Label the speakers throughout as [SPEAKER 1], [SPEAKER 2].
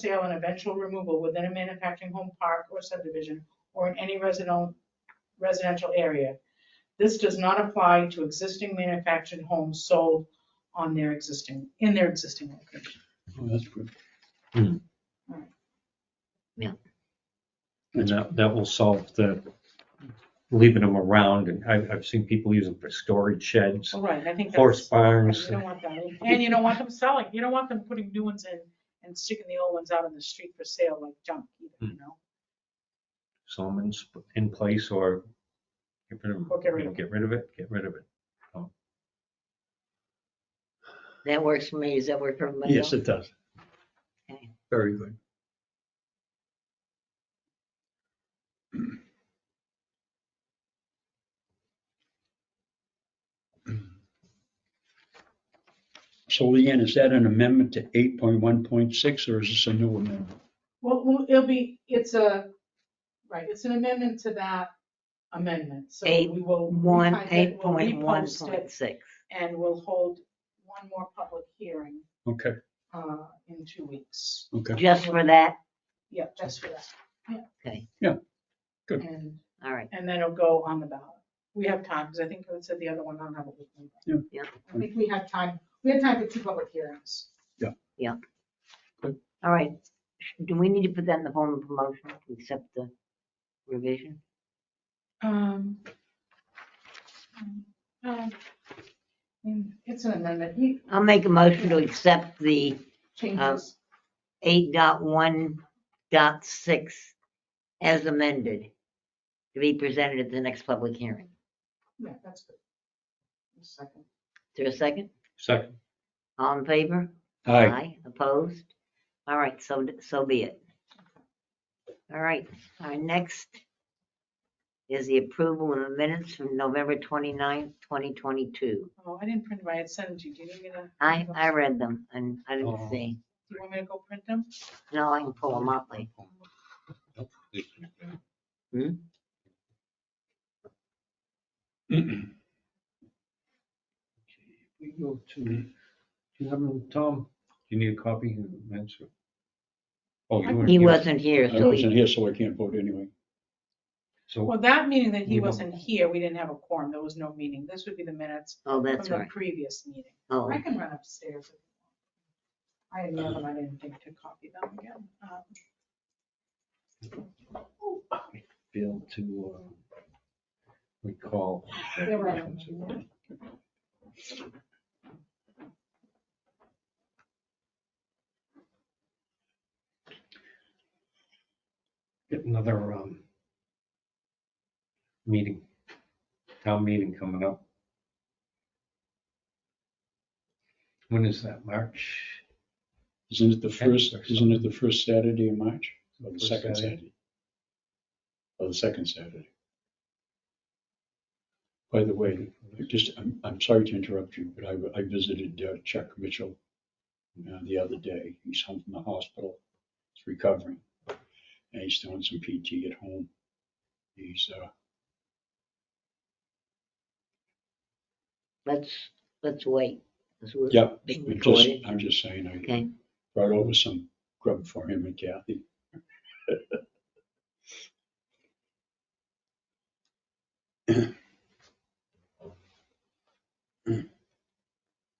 [SPEAKER 1] sale and eventual removal within a manufacturing home park or subdivision or in any residential, residential area. This does not apply to existing manufactured homes sold on their existing, in their existing location.
[SPEAKER 2] Oh, that's good.
[SPEAKER 3] Hmm.
[SPEAKER 4] Yeah.
[SPEAKER 3] And that, that will solve the leaving them around. And I've, I've seen people use them for storage sheds,
[SPEAKER 1] All right, I think that's.
[SPEAKER 3] horse
[SPEAKER 1] Right,
[SPEAKER 3] barns.
[SPEAKER 1] You don't want that, and you don't want them selling, you don't want them putting new ones in and sticking the old ones out on the street for sale like junk, either, you know?
[SPEAKER 3] some in, sp- in place or get rid of,
[SPEAKER 1] Or get rid
[SPEAKER 3] you know,
[SPEAKER 1] of
[SPEAKER 3] get rid of it, get rid of it.
[SPEAKER 4] That works for me. Does that work for everybody?
[SPEAKER 2] Yes,
[SPEAKER 4] else?
[SPEAKER 2] it does.
[SPEAKER 4] Okay.
[SPEAKER 2] Very good. So Leanne, is that an amendment to eight point one point six, or is this a new amendment?
[SPEAKER 1] Well, well, it'll be, it's a, right, it's an amendment to that amendment, so we
[SPEAKER 4] Eight,
[SPEAKER 1] will.
[SPEAKER 4] One,
[SPEAKER 1] retype
[SPEAKER 4] eight
[SPEAKER 1] it, we'll
[SPEAKER 4] point one
[SPEAKER 1] repost
[SPEAKER 4] point
[SPEAKER 1] it,
[SPEAKER 4] six.
[SPEAKER 1] And we'll hold one more public hearing,
[SPEAKER 2] Okay,
[SPEAKER 1] uh, in two weeks,
[SPEAKER 2] okay,
[SPEAKER 4] Just for that?
[SPEAKER 1] yeah, just for that. Yeah.
[SPEAKER 4] Okay.
[SPEAKER 2] Yeah, good.
[SPEAKER 1] And,
[SPEAKER 4] All right.
[SPEAKER 1] and then it'll go on the ballot. We have time, because I think it said the other one, I don't have it with me.
[SPEAKER 2] Yeah.
[SPEAKER 4] Yeah.
[SPEAKER 1] I think we have time, we have time for two public hearings.
[SPEAKER 4] All right. Do we need to put that in the form of a motion to accept the revision?
[SPEAKER 1] Um, um, um, mm, It's an amendment, he
[SPEAKER 4] I'll make a motion to accept the Um,
[SPEAKER 1] changes,
[SPEAKER 4] eight dot one dot six as amended to be presented at the next public hearing.
[SPEAKER 1] yeah, that's good. A Second.
[SPEAKER 4] Is there a second?
[SPEAKER 3] Second,
[SPEAKER 4] All in favor?
[SPEAKER 2] aye,
[SPEAKER 4] Opposed? All right, so, so be it. All right, our next is the approval of the minutes from November 29th, 2022.
[SPEAKER 1] Oh, I didn't print them, I had sent them to you, do you need me to?
[SPEAKER 4] I, I read them and I
[SPEAKER 2] Oh.
[SPEAKER 4] didn't see.
[SPEAKER 1] Do you want me to go print them?
[SPEAKER 4] No, I can pull them up later. Hmm?
[SPEAKER 3] we go to, do you have them, Tom? Do you need a copy? That's- Oh, you weren't
[SPEAKER 4] He
[SPEAKER 3] here.
[SPEAKER 4] wasn't here,
[SPEAKER 2] I
[SPEAKER 4] so
[SPEAKER 2] wasn't
[SPEAKER 4] he,
[SPEAKER 2] here, so I can't vote anyway.
[SPEAKER 3] So
[SPEAKER 1] Well, that meeting that he
[SPEAKER 3] We don't-
[SPEAKER 1] wasn't here, we didn't have a quorum, there was no meeting, this would be the minutes
[SPEAKER 4] oh,
[SPEAKER 1] from
[SPEAKER 4] that's
[SPEAKER 1] the
[SPEAKER 4] right.
[SPEAKER 1] previous meeting.
[SPEAKER 4] Oh,
[SPEAKER 1] I can run upstairs. if you want. I had no, I didn't think to copy them again. Um,
[SPEAKER 3] Bill to uh, recall.
[SPEAKER 1] They were on the meeting.
[SPEAKER 3] Get another um, meeting, town meeting coming up. When is that, March?
[SPEAKER 2] Isn't it the
[SPEAKER 3] Okay.
[SPEAKER 2] first, isn't it the first Saturday in March? Or the
[SPEAKER 3] First
[SPEAKER 2] second
[SPEAKER 3] Saturday.
[SPEAKER 2] Saturday? Or the second Saturday? By the way, I just, I'm, I'm sorry to interrupt you, but I, I visited uh, Chuck Mitchell uh, the other day. He's home from the hospital. He's recovering. And he's doing some PT at home. He's, uh,
[SPEAKER 4] let's, let's wait. 'cause we're
[SPEAKER 2] Yep,
[SPEAKER 4] Being
[SPEAKER 2] I'm just,
[SPEAKER 4] recorded.
[SPEAKER 2] I'm just saying, I
[SPEAKER 4] Okay,
[SPEAKER 2] brought over some grub for him and Kathy.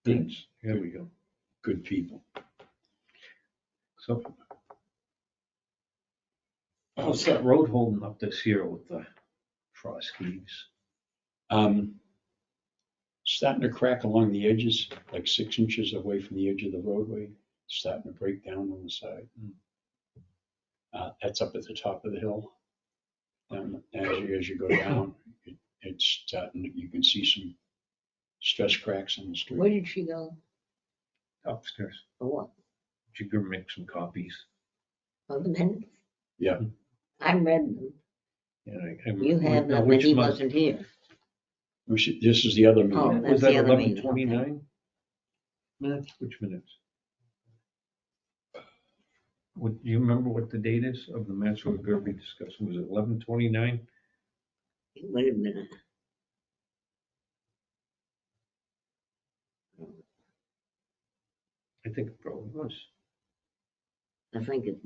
[SPEAKER 2] Good,
[SPEAKER 3] Here we go.
[SPEAKER 2] good people.
[SPEAKER 3] So. How's that road holding up this year with the frost heaves?
[SPEAKER 2] Um, starting to crack along the edges, like six inches away from the edge of the roadway, starting to break down on the side. Uh, that's up at the top of the hill. Um, as you, as you go down, it, it's starting, you can see some stress cracks in the
[SPEAKER 4] where
[SPEAKER 2] street.
[SPEAKER 4] did she go?
[SPEAKER 3] Upstairs,
[SPEAKER 4] For what?
[SPEAKER 3] did you make some copies?
[SPEAKER 4] For the minutes?
[SPEAKER 2] Yeah.
[SPEAKER 4] I read them.
[SPEAKER 3] Yeah, I- I-
[SPEAKER 4] You have
[SPEAKER 3] now,
[SPEAKER 4] them and
[SPEAKER 3] which
[SPEAKER 4] he
[SPEAKER 3] month?
[SPEAKER 4] wasn't here.
[SPEAKER 2] We should- This is the other
[SPEAKER 4] Oh,
[SPEAKER 2] meeting.
[SPEAKER 4] that's
[SPEAKER 3] Was that
[SPEAKER 4] the other meeting,
[SPEAKER 3] eleven
[SPEAKER 4] okay.
[SPEAKER 3] twenty-nine? Minutes, which minutes? What, do you remember what the date is of the minutes we were going to be discussing? Was it eleven twenty-nine?
[SPEAKER 4] Wait a minute.
[SPEAKER 3] I think it probably was.
[SPEAKER 4] I think it's